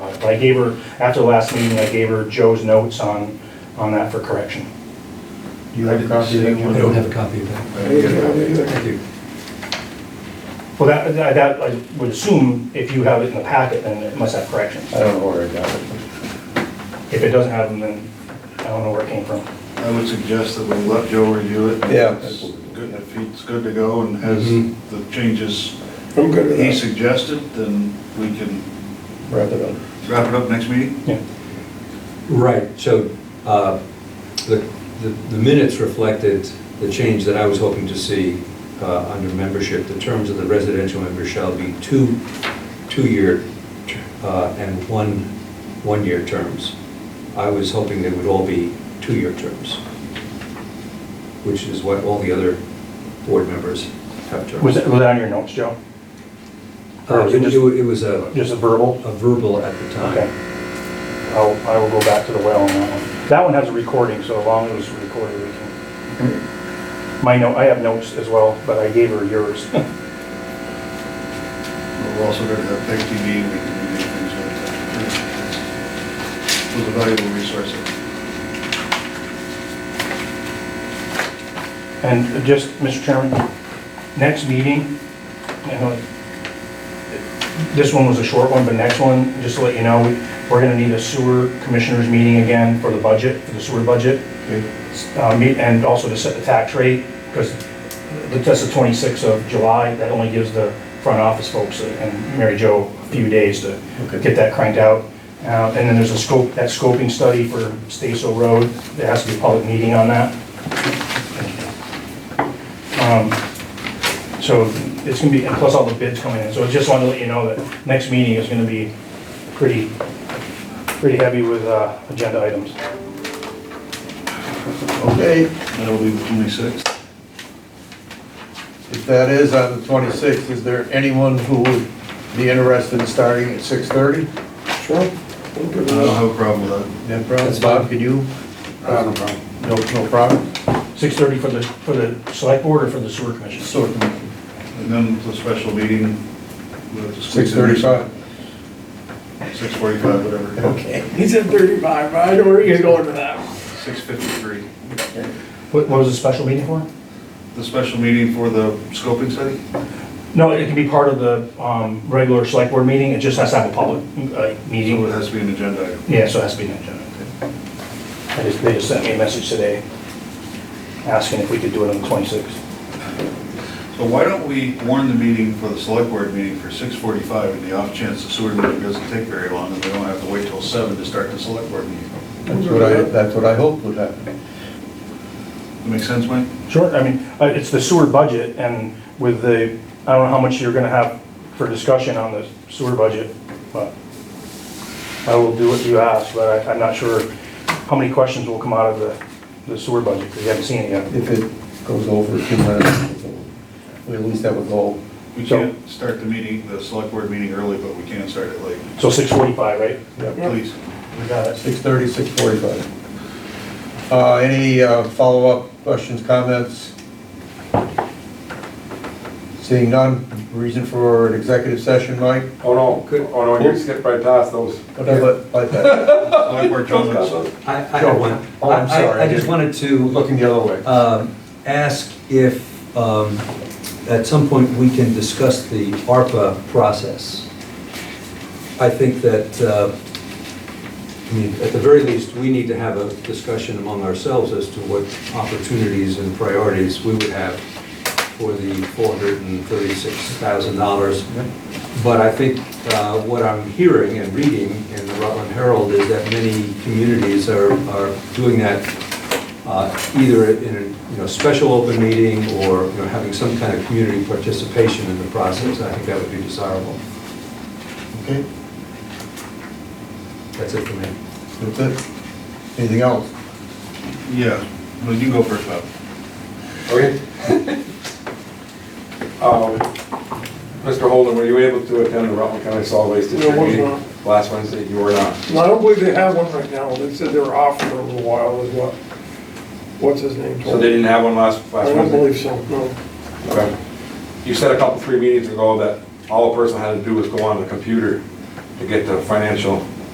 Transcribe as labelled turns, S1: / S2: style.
S1: But I gave her, after the last meeting, I gave her Joe's notes on, on that for correction.
S2: Do you have a copy of that
S3: I
S2: one?
S3: don't have a copy of that.
S2: I didn't get a copy.
S3: Thank you.
S1: Well, that, that- that, I would assume if you have it in the packet, then it must have corrections.
S2: I don't know where I got it.
S1: If it doesn't have them, then I don't know where it came from.
S4: I would suggest that we let Joe review it.
S2: Yeah. Mm-hmm.
S4: It's good- If he's good to go and has
S3: Mhm.
S4: the changes
S2: I'm good with
S4: he
S2: that.
S4: suggested, then we can
S2: Wrap it up.
S4: wrap it up next meeting.
S1: Yeah.
S3: Right, so uh, the the the minutes reflected the change that I was hoping to see uh, under membership. The terms of the residential members shall be two, two-year uh, and one, one-year terms. I was hoping they would all be two-year terms, which is what all the other board members have terms.
S1: Was that, was that on your notes, Joe?
S3: Uh, It was- it was a
S1: Just a verbal?
S3: a verbal at the
S1: Okay.
S3: time.
S1: I'll, I will go back to the well on that one. That one has a recording, so as long as it's recorded, we can.
S2: Mm-hmm.
S1: My note, I have notes as well, but I gave her yours.
S4: We're also going to have big TV, we can review things like that. It was a valuable resource.
S1: And just, Mr. Chairman, next meeting, you know, this one was a short one, but next one, just to let you know, we're gonna need a sewer commissioners meeting again for the budget, for the sewer budget.
S4: Okay.
S1: Uh, meet- and also to set the tax rate, because that's the twenty-sixth of July, that only gives the front office folks and Mary Jo a few days to get that cranked out. Uh, and then there's a scope, that scoping study for Staso Road, there has to be a public meeting on that. Um, So it's gonna be, and plus all the bids coming in, so I just wanted to let you know that next meeting is gonna be pretty, pretty heavy with, uh, agenda items.
S2: Okay,
S4: That'll be the twenty-sixth.
S2: if that is on the 26th, is there anyone who would be interested in starting at 6:30?
S4: I don't have a problem with
S2: No problem.
S3: That's fine.
S2: Bob, can you?
S4: that. No
S2: Um,
S4: problem.
S2: No, no problem.
S1: 6:30 for the, for the select board or for the sewer commission?
S2: So,
S4: And then the special meeting.
S2: 6:35.
S4: Six forty-five, whatever.
S2: Okay.
S5: He said thirty-five, but I know where he was going with that.
S4: Six fifty-three.
S1: What, what was the special meeting for?
S4: The special meeting for the scoping study?
S1: No, it can be part of the, um, regular select board meeting, it just has to have a public, uh,
S4: So it
S1: meeting.
S4: has to be an agenda item.
S1: Yeah, so it has to be an agenda. I just, they just sent me a message today asking if we could do it on the 26th.
S4: So why don't we warn the meeting for the select board meeting for 6:45 in the off chance the sewer meeting doesn't take very long and we don't have to wait till 7 to start the select board meeting?
S2: That's what I, that's what I hoped would happen.
S4: That make sense, Mike?
S1: Sure, I mean, uh, it's the sewer budget and with the, I don't know how much you're gonna have for discussion on the sewer budget, but I will do what you ask, but I, I'm not sure how many questions will come out of the, the sewer budget, because you haven't seen it yet.
S2: If it goes over two minutes, we at least have a goal.
S4: We
S1: So-
S4: can't start the meeting, the select board meeting early, but we can start it late.
S1: So six forty-five, right?
S4: Please.
S1: We got it.
S2: 6:30, 6:45. Uh, Any uh, follow-up questions, comments? Seeing none, reason for an executive session, Mike?
S6: Oh, no, Good. oh, no, you skipped right past those.
S2: Okay, but- but that-
S4: Select board comments.
S3: I, I had one.
S2: Oh, I'm
S3: I- I-
S2: sorry, I
S3: I just
S2: didn't-
S3: wanted to.
S2: Looking the other way.
S3: um, ask if, um, at some point, we can discuss the ARPA process. I think that, uh, I mean, at the very least, we need to have a discussion among ourselves as to what opportunities and priorities we would have for the $436,000. But I think uh, what I'm hearing and reading in the Rutland Herald is that many communities are are doing that uh, either in a, you know, special open meeting or, you know, having some kind of community participation in the process, I think that would be desirable.
S2: Okay,
S3: That's it for me.
S2: that's it. Anything else?
S4: Yeah, well, you can go first, Bob.
S6: Okay. Um, Mr. Holden, were you able to attend the Rutland County Solid Waste District
S5: No, I was
S6: meeting
S5: not.
S6: last Wednesday? You were not.
S5: And I don't believe they have one right now, they said they were off for a little while, is what, what's his name
S6: So
S5: told
S6: they
S5: me.
S6: didn't have one last,
S5: I
S6: last
S5: don't
S6: Wednesday?
S5: believe so, no.
S6: Okay. You said a couple, three meetings ago that all a person had to do was go on the computer to get the financial